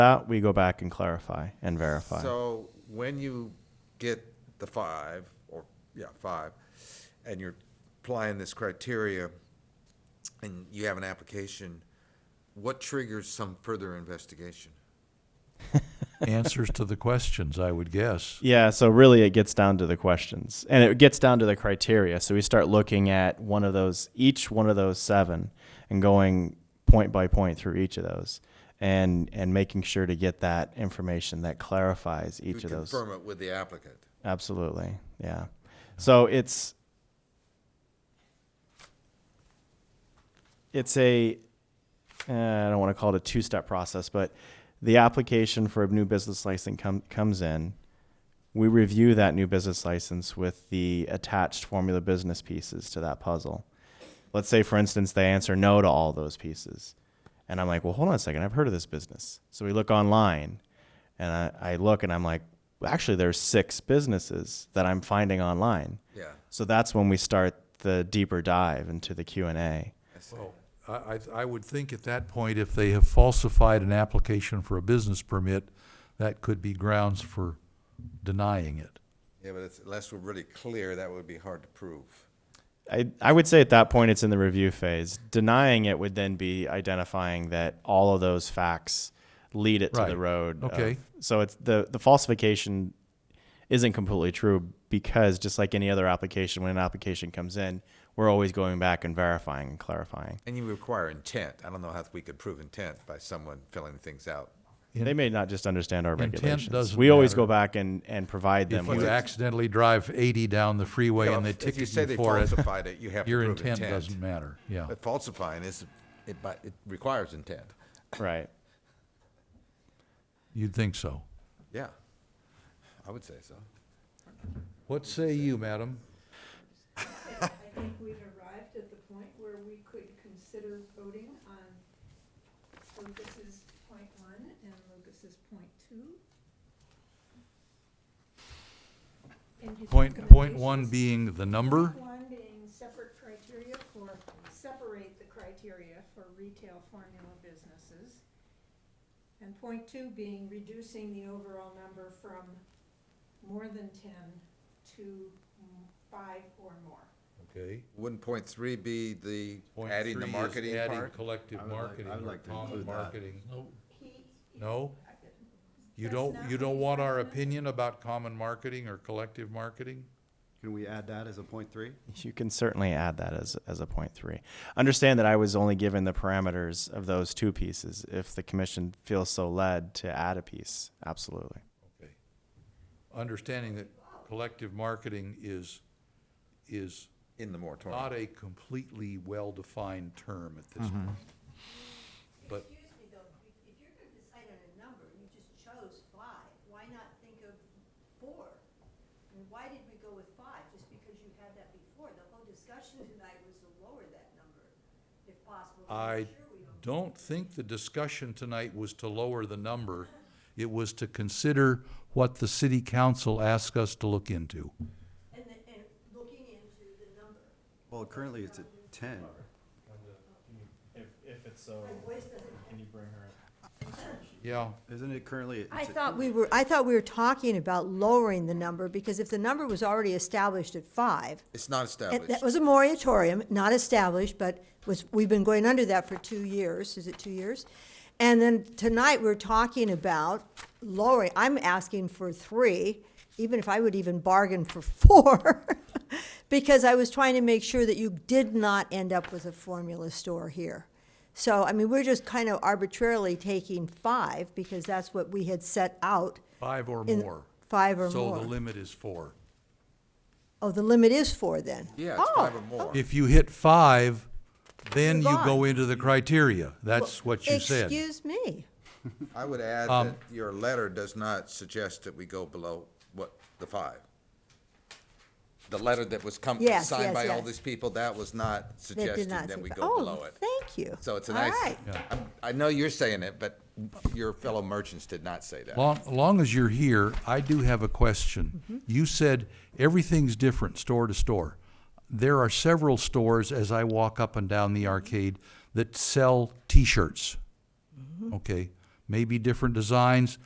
That we go back and clarify and verify. So when you get the five, or, yeah, five, and you're applying this criteria, and you have an application, what triggers some further investigation? Answers to the questions, I would guess. Yeah, so really it gets down to the questions and it gets down to the criteria. So we start looking at one of those, each one of those seven, and going point by point through each of those and and making sure to get that information that clarifies You each of those. Confirm it with the applicant. Absolutely. Yeah. So it's it's a uh, I don't want to call it a two-step process, but the application for a new business license com- comes in. We review that new business license with the attached formula business pieces to that puzzle. Let's say, for instance, they answer no to all those pieces. And I'm like, well, hold on a second. I've heard of this business. So we look online and I, I look and I'm like, actually, there's six businesses that I'm finding online. Yeah, So that's when we start the deeper dive into the Q&A. I see. Well, I, I, I would think at that point, if they have falsified an application for a business permit, that could be grounds for denying it. Yeah, but it's, unless we're really clear, that would be hard to prove. I, I would say at that point it's in the review phase. Denying it would then be identifying that all of those facts lead it to the Right. road. of- Okay. so it's the the falsification isn't completely true because just like any other application, when an application comes in, we're always going back and verifying and clarifying. And you require intent. I don't know how we could prove intent by someone filling things out. In- they may not just understand our Intent regulations. doesn't We always matter. go back and, and provide them If with you accidentally drive eighty down the freeway Yeah, and they if- if you ticket say you they for it, falsified it, you have to your prove intent intent. doesn't matter, yeah. But falsifying is, it, by- it requires intent. right. You'd think so. Yeah, I would say so. What say you, madam? I think we've arrived at the point where we could consider voting on Lucas's point one and Lucas's point two. And his Point, point one recommendations. being the number? Point One being separate criteria for, separate the criteria for retail formula businesses. And point two being reducing the overall number from more than ten to mm, five or more. Okay. Wouldn't point three be the Point adding the three is marketing Adding part? collective I would like- marketing I would or like to common include that. marketing. He. No? You That's don't, not you what don't he's want our recommending. opinion about common marketing or collective marketing? Can we add that as a point three? You can certainly add that as, as a point three. Understand that I was only given the parameters of those two pieces. If the commission feels so led to add a piece, absolutely. Okay. Understanding that collective marketing is, is In the moratorium. not a completely well-defined term at this point. But- Excuse me, though, if, if you're gonna decide on a number, and you just chose five, why not think of four? And why did we go with five, just because you had that before? The whole discussion tonight was to lower that number, if possible. to I make sure we don't- don't think the discussion tonight was to lower the number. It was to consider what the city council asked us to look into. And then, and looking into the number, Well, currently it's at ten. If, if it's so, my voice doesn't. can you bring her up? Yeah, Isn't it currently? I thought we were, I thought we were talking about lowering the number, because if the number was already established at five, It's not And established. that was a moratorium, not established, but was, we've been going under that for two years, is it two years? And then tonight, we're talking about lowering, I'm asking for three, even if I would even bargain for four, because I was trying to make sure that you did not end up with a formula store here. So, I mean, we're just kind of arbitrarily taking five, because that's what we had set out, five or In- more. five or So the more. limit is four. Oh, the limit is four, then? Yeah, it's Oh, five or more. If you hit five, then you Move go on. into the criteria. That's what you said. Excuse me. I would add Um, that your letter does not suggest that we go below what, the five. The letter that was come, Yes, signed yes, by all yes. these people, that was not That suggesting did not that seem we fa- go below it. Oh, thank you. So it's a All nice, right. I'm- I know you're saying it, but your fellow merchants did not say that. Long, long as you're here, I do have a question. You said everything's different store to store. There are several stores as I walk up and down the arcade that sell T-shirts. Okay, maybe different designs,